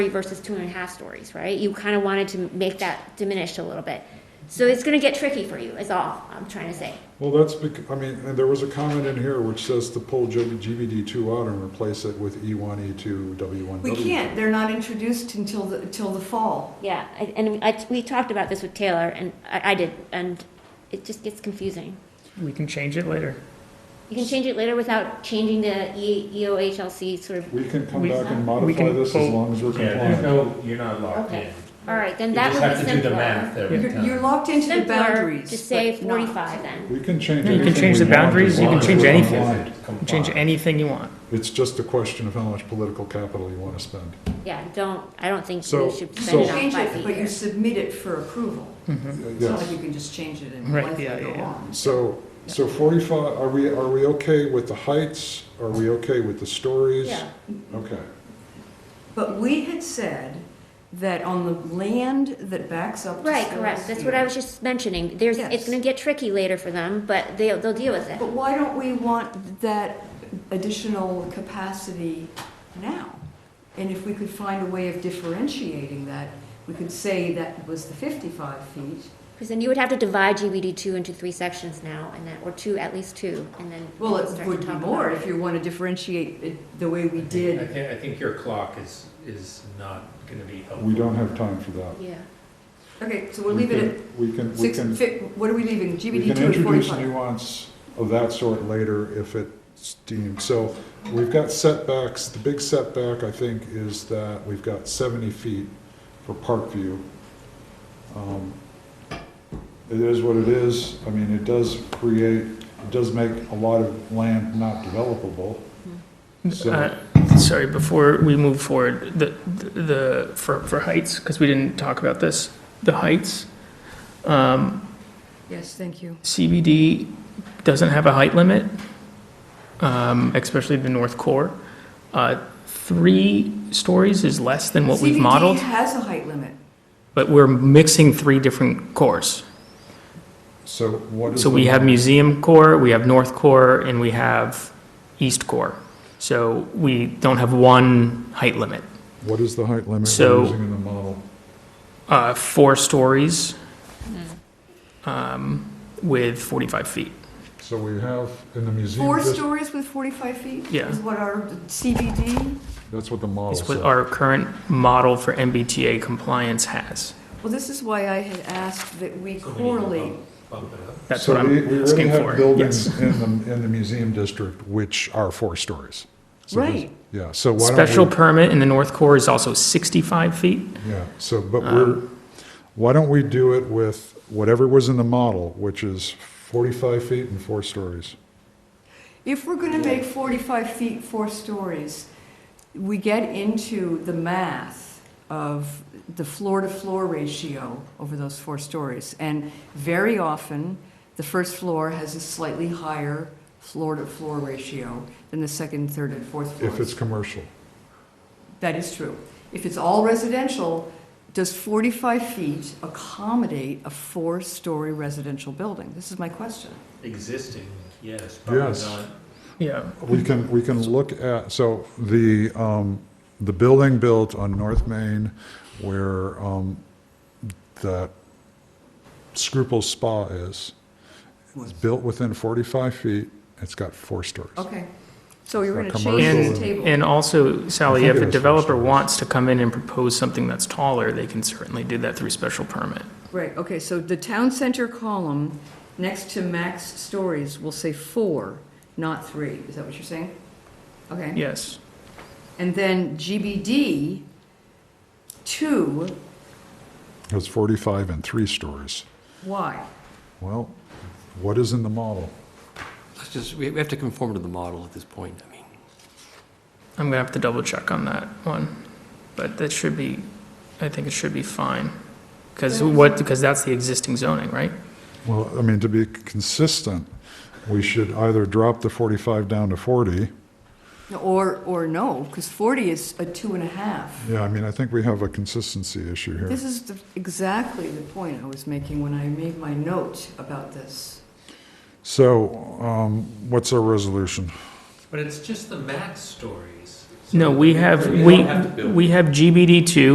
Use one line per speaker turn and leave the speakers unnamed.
versus two and a half stories, right? You kind of wanted to make that diminished a little bit. So it's gonna get tricky for you, is all I'm trying to say.
Well, that's bec, I mean, and there was a comment in here which says to pull GBD two out and replace it with E one, E two, W one,
We
W.
can't, they're not introduced until, the until the fall.
Yeah, I- and I, we talked about this with Taylor, and I, I did, and it just gets confusing.
We can change it later.
You can change it later without changing the E, EOHLC sort of,
We can come
We-
back and
we
modify
can
this as
pull-
long as we're
Yeah, there's
compliant.
no, you're not locked
Okay.
in.
all right, then
You
that
just
would
have
be
to do the
simpler.
math every
You're, you're
time.
locked into the
Simpler,
boundaries.
just say
but not-
forty-five then.
We can change
No, you can
anything
change
we want
the
as
boundaries, you
long
can
as
change
we're
anything.
compliant.
Change
Comply.
anything you want.
It's just a question of how much political capital you want to spend.
Yeah, don't, I don't think
So-
we should
so-
spend
You
it on
change
five
it,
feet
but
here.
you submit it for approval. It's not like
Yes.
you can just change it and
Right,
life
yeah,
will go
yeah, yeah.
on.
So, so forty-five, are we, are we okay with the heights? Are we okay with the stories?
Yeah,
Okay.
But we had said that on the land that backs up to
right,
Stellar's
correct, that's what I
Field-
was just mentioning, there's, it's
Yes.
gonna get tricky later for them, but they'll, they'll deal with it.
But why don't we want that additional capacity now? And if we could find a way of differentiating that, we could say that was the 55 feet.
Because then you would have to divide GBD two into three sections now, and then, or two, at least two, and then.
Well, it
start
would
to
be
talk
more
about
if you want to differentiate it the way we
I think- I
did.
think, I think your clock is, is not gonna be helpful.
We don't have time for that.
it. Yeah,
Okay, so we'll leave it
We can,
at
we
six,
can,
fi- what are we leaving?
we
GBD
can
two at
introduce
45?
nuance of that sort later if it's deemed. So we've got setbacks, the big setback, I think, is that we've got seventy feet for Parkview. Um, It is what it is, I mean, it does create, it does make a lot of land not developable. So-
Uh, Sorry, before we move forward, the, the, for, for heights, because we didn't talk about this, the heights, um,
Yes, thank you.
CBD doesn't have a height limit, um, especially the north core. Uh, Three stories is less than what we've modeled,
CBD has a height limit.
but we're mixing three different cores.
So what is?
So
the-
we have museum core, we have north core, and we have east core. So we don't have one height limit.
What is the height limit we're
So-
using in the model?
uh, four stories um, with 45 feet.
So we have in the museum
Four
district-
stories with 45 feet
Yeah.
is what our CBD
that's what the model
Is
says.
what our current model for MBTA compliance has.
Well, this is why I had asked that we
So we need to
correlate,
Bump bump it up.
That's
So
what
we- we
I'm
already
asking
have
for.
Buildings
Yes.
in the, in the museum district which are four stories. So there's-
Right.
Yeah, so why
Special
don't
permit in the North Core is also 65 feet.
we, yeah, so, but
Uh,
we're, why don't we do it with whatever was in the model, which is forty-five feet and four stories?
if we're gonna make forty-five feet four stories, we get into the math of the floor-to-floor ratio over those four stories. And very often, the first floor has a slightly higher floor-to-floor ratio than the second, third, and fourth floors.
If it's commercial,
That is true. If it's all residential, does 45 feet accommodate a four-story residential building? This is my question.
Existing, yes, probably
Yes.
not.
Yeah.
we can, we can look at, so the, um, the building built on North Main where, um, that Scruple's Spa is, is built within forty-five feet, it's got four stories.
Okay. So you're
It's
going
not commercial.
to change the
And,
table.
and also,
I
Sally,
think
if
it
a
was
developer
first.
wants to come in and propose something that's taller, they can certainly do that through special permit.
Right, okay, so the town center column next to max stories will say four, not three. Is that what you're saying? Okay.
Yes.
And then GBD, two,
It was 45 and three stories.
why?
Well, what is in the model?
Let's just, we we have to conform to the model at this point, I mean.
I'm gonna have to double check on that one, but that should be, I think it should be fine. Because what, because that's the existing zoning, right?
Well, I mean, to be consistent, we should either drop the 45 down to 40.
Or, or no, because 40 is a two and a half.
Yeah, I mean, I think we have a consistency issue here.
This is the- exactly the point I was making when I made my note about this.
So um, what's our resolution?
But it's just the max stories. so
No, we
they
have,
don't
we,
have to build.
we have GBD two